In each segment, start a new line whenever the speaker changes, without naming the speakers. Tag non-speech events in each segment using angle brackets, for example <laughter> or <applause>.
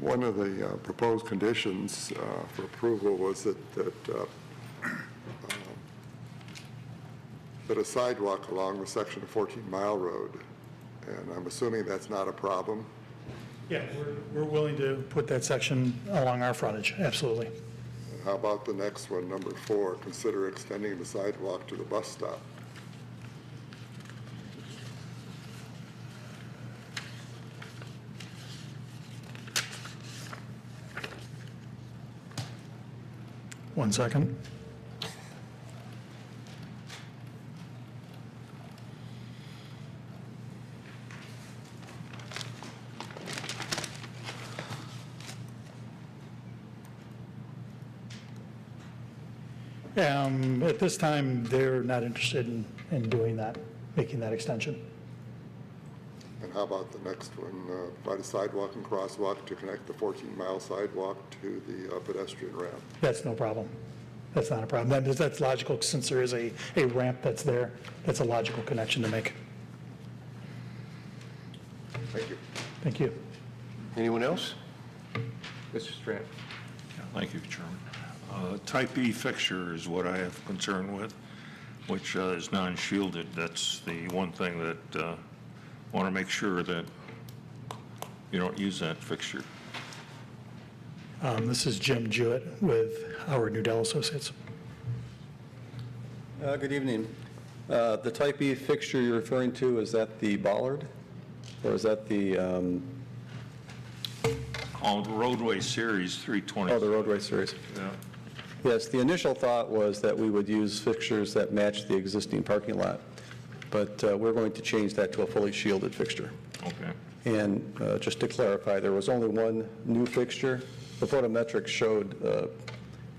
One of the uh, proposed conditions uh, for approval was that, that, uh, that a sidewalk along the section of 14 Mile Road, and I'm assuming that's not a problem.
Yeah, we're- we're willing to put that section along our frontage, absolutely.
How about the next one, number four, consider extending the sidewalk to the bus stop?
One second. Um, At this time, they're not interested in, in doing that, making that extension.
And how about the next one, uh, provide a sidewalk and crosswalk to connect the 14 mile sidewalk to the uh, pedestrian ramp?
That's no problem. That's not a problem. That is, that's logical, since there is a, a ramp that's there, that's a logical connection to make.
Thank you.
Thank you.
Anyone else? Mr. Strand?
Thank you, Chairman. Uh, Type E fixture is what I have concern with, which uh, is non-shielded. That's the one thing that, want to make sure that you don't use that fixture.
Um, This is Jim Jewett with Howard Nudell Associates.
Uh, Good evening. Uh, The type E fixture you're referring to, is that the bollard? Or is that the, um,
On roadway series 320.
oh, the roadway series?
Yeah.
Yes, the initial thought was that we would use fixtures that match the existing parking lot, but uh, we're going to change that to a fully shielded fixture.
Okay.
And uh, just to clarify, there was only one new fixture. The photometric showed uh,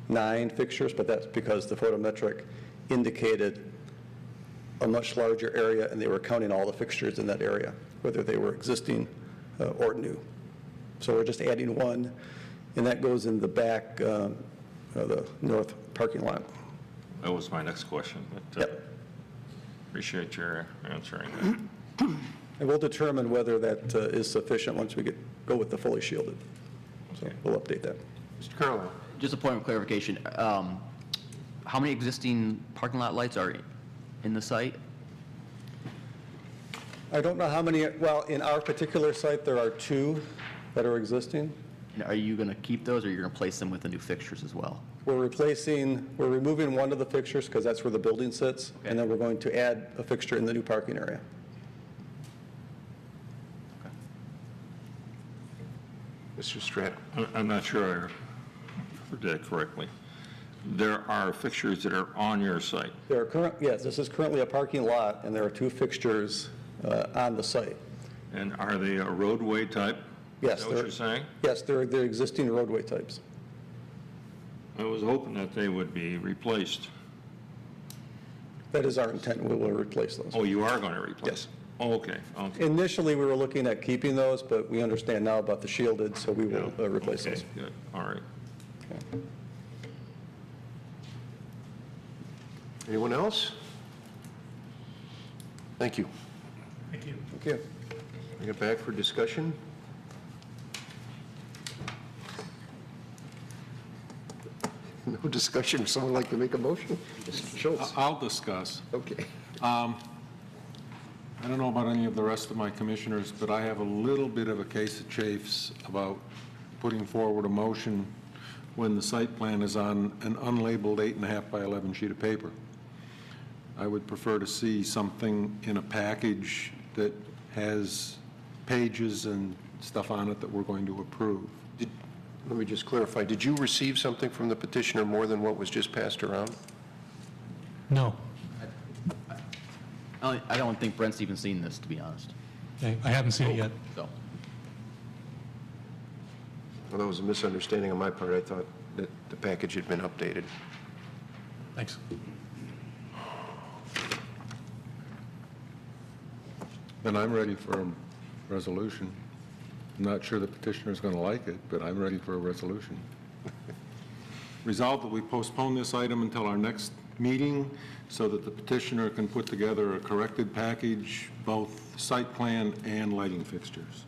nine fixtures, but that's because the photometric indicated a much larger area, and they were counting all the fixtures in that area, whether they were existing uh, or new. So we're just adding one, and that goes in the back um, of the north parking lot.
That was my next question, but uh,
Yep.
appreciate your answering that.
And we'll determine whether that uh, is sufficient once we get, go with the fully shielded. So we'll update that.
Mr. Carlo?
Just a point of clarification, um, how many existing parking lot lights are in the site?
I don't know how many, well, in our particular site, there are two that are existing.
And are you going to keep those, or you're going to place them with the new fixtures as well?
We're replacing, we're removing one of the fixtures because that's where the building sits, and then we're going to add a fixture in the new parking area.
Mr. Strand?
I- I'm not sure I heard that correctly. There are fixtures that are on your site.
There are current, yes, this is currently a parking lot, and there are two fixtures uh, on the site.
And are they a roadway type? Is
Yes,
that what
they're-
you're saying?
Yes, they're, they're existing roadway types.
I was hoping that they would be replaced.
That is our intent, we will replace those.
Oh, you are going to replace?
Yes.
Oh, Okay, okay.
Initially, we were looking at keeping those, but we understand now about the shielded, so we will uh, replace
Okay,
those.
Good, all right.
Anyone else? Thank you.
Thank you.
Thank you.
Bring it back for discussion. <laughs> No discussion, Would someone like to make a motion? Mr.
Uh,
Schultz?
I'll discuss.
Okay.
I don't know about any of the rest of my commissioners, but I have a little bit of a case of chafes about putting forward a motion when the site plan is on an unlabeled eight and a half by 11 sheet of paper. I would prefer to see something in a package that has pages and stuff on it that we're going to approve.
Did- Let me just clarify, did you receive something from the petitioner more than what was just passed around?
No,
I don't- I don't think Brent's even seen this, to be honest,
I I haven't seen it yet.
so.
Well, that was a misunderstanding on my part. I thought that the package had been updated.
Thanks.
Then I'm ready for a resolution. I'm not sure the petitioner's going to like it, but I'm ready for a resolution. <laughs> Resolved that we postpone this item until our next meeting so that the petitioner can put together a corrected package, both site plan and lighting fixtures.